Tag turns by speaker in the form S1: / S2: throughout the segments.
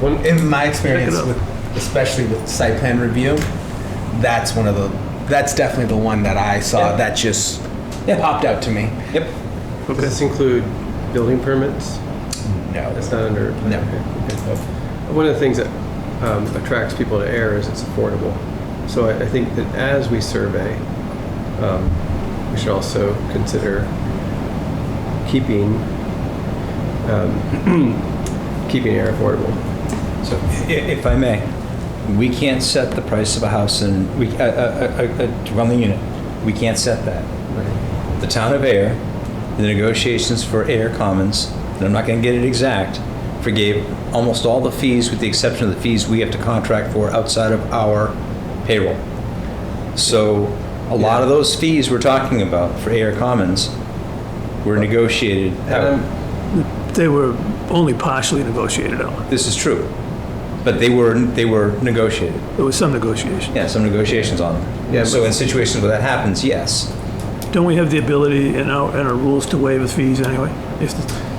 S1: When, in my experience,
S2: up.
S1: with, especially with site plan review, that's one of the, that's definitely the one that I saw
S3: Yeah.
S1: that just popped out to me.
S3: Yep.
S2: Okay.
S4: Does this include building permits?
S1: No,
S4: That's not under.
S1: No.
S4: Okay. One of the things that um, attracts people to air is it's affordable. So I, I think that as we survey, um, we should also consider keeping um, keeping air affordable.
S3: So i- if I may, we can't set the price of a house in, we, a, a, a- a dwelling unit. We can't set that. The town of Air, the negotiations for Air Commons, and I'm not gonna get it exact, forgave almost all the fees with the exception of the fees we have to contract for outside of our payroll. So a lot of those fees we're talking about for Air Commons were negotiated out.
S4: Adam,
S5: They were only partially negotiated out.
S3: This is true. But they were, they were negotiated.
S5: There was some negotiation.
S3: Yeah, some negotiations on them.
S4: Yeah,
S3: So
S4: but-
S3: in situations where that happens, yes.
S5: Don't we have the ability in our, in our rules to waive the fees anyway? If,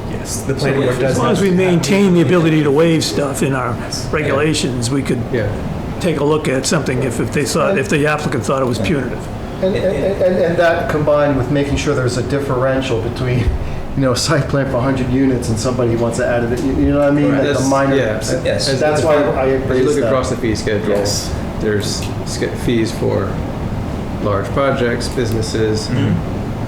S1: yes, the planning board does
S5: as long
S1: not.
S5: as we maintain the ability to waive stuff in our regulations, we could
S4: yeah.
S5: take a look at something if, if they thought, if the applicant thought it was punitive.
S6: And, and, and- and that combined with making sure there's a differential between, you know, a site plan for 100 units and somebody wants to add it, you you know what I mean? Like the
S4: That's-
S6: minor.
S4: yeah,
S3: yes.
S6: So That's why I
S4: If you
S6: raised
S4: look across
S6: that.
S4: the fee schedule,
S1: Yes.
S4: there's ske- fees for large projects, businesses.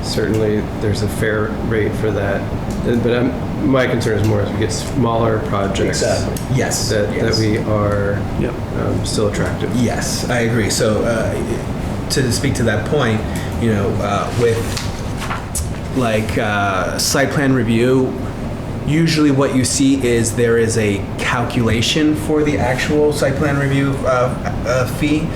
S4: Certainly, there's a fair rate for that. And- But I'm, my concern is more as we get smaller projects.
S3: Exactly.
S1: Yes,
S4: That, that
S1: yes.
S4: we are
S5: Yep.
S4: um, still attractive.
S1: Yes, I agree. So uh, to speak to that point, you know, uh, with like uh, site plan review, usually what you see is there is a calculation for the actual site plan review uh, uh, fee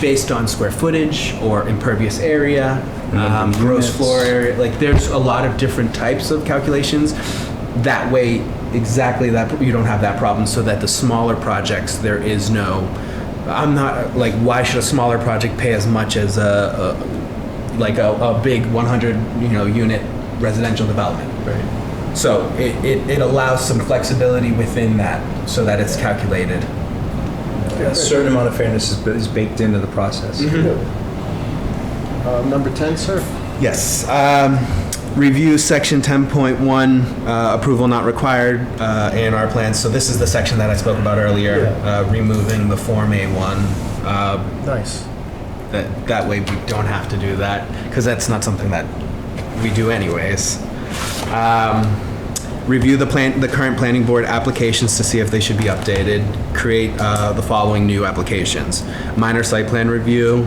S1: based on square footage or impervious area, um, gross floor area. Like there's a lot of different types of calculations. That way, exactly that you don't have that problem. So that the smaller projects, there is no. I'm not like why should a smaller project pay as much as a, a like a, a big 100 you know unit residential development.
S4: Right.
S1: So it, it, it allows some flexibility within that so that it's calculated.
S3: A certain amount of fairness is- is baked into the process.
S6: Uh, Number 10, sir?
S1: Yes. um, Review section 10.1, uh, approval not required, uh, A&R plans. So this is the section that I spoke about earlier, uh, removing the Form A1. uh,
S6: Nice.
S1: That, that way we don't have to do that, because that's not something that we do anyways. Um, Review the plan, the current planning board applications to see if they should be updated. Create uh, the following new applications. Minor site plan review.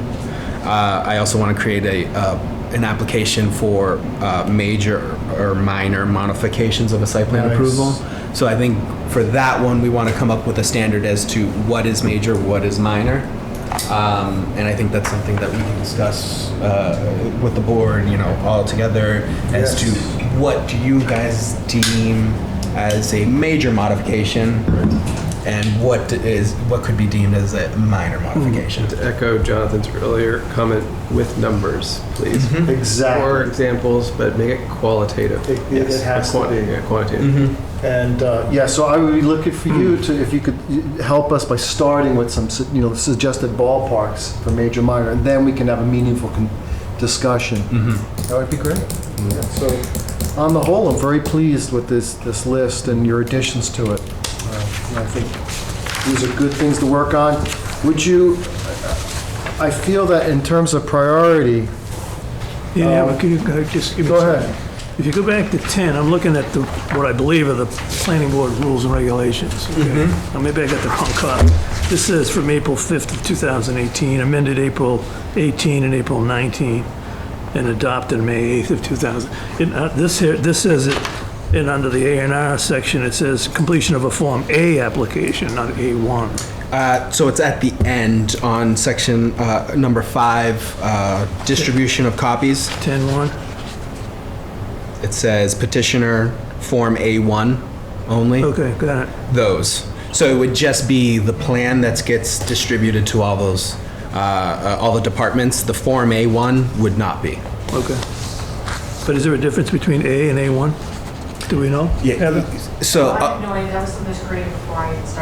S1: Uh, I also want to create a, uh, an application for uh, major or minor modifications of a site plan approval. So I think for that one, we want to come up with a standard as to what is major, what is minor. Um, And I think that's something that we can discuss uh, with the board, you know, all together as to what do you guys deem as a major modification? And what is, what could be deemed as a minor modification?
S4: To echo Jonathan's earlier comment, with numbers, please. Or
S6: Mm-hmm. Exactly.
S4: examples, but make it qualitative.
S6: It- it- it has to
S4: Quanti-
S6: be.
S4: yeah, Quantitative.
S6: And, uh, yeah, so I would be looking for you to, if you could y- help us by starting with some, su- you know, suggested ballparks for major, minor, and then we can have a meaningful con- discussion. That would be great. Yeah, So, on the whole, I'm very pleased with this, this list and your additions to it. Uh, and I think these are good things to work on. Would you, I feel that in terms of priority,
S5: Yeah, yeah, but can you, can I just give me
S6: Um, Go
S5: some-
S6: ahead.
S5: If you go back to 10, I'm looking at the, what I believe are the planning board rules and regulations. okay?
S6: Mm-hmm.
S5: Now, maybe I got the wrong copy. This says from April 5th of 2018, amended April 18 and April 19, and adopted May 8th of 2000. It, uh, This here, this says it, and under the A and R section, it says completion of a Form A application, not A1.
S1: Uh, So it's at the end on section uh, number five, uh, distribution of copies.
S5: 10-1,
S1: It says petitioner Form A1 only.
S5: okay, got it.
S1: those. So it would just be the plan that gets distributed to all those, uh, uh, all the departments. The Form A1 would not be.
S5: Okay. But is there a difference between A and A1? Do we know? Heather?
S1: So.
S2: I
S1: uh,
S2: have no idea, that was something that's created before I started.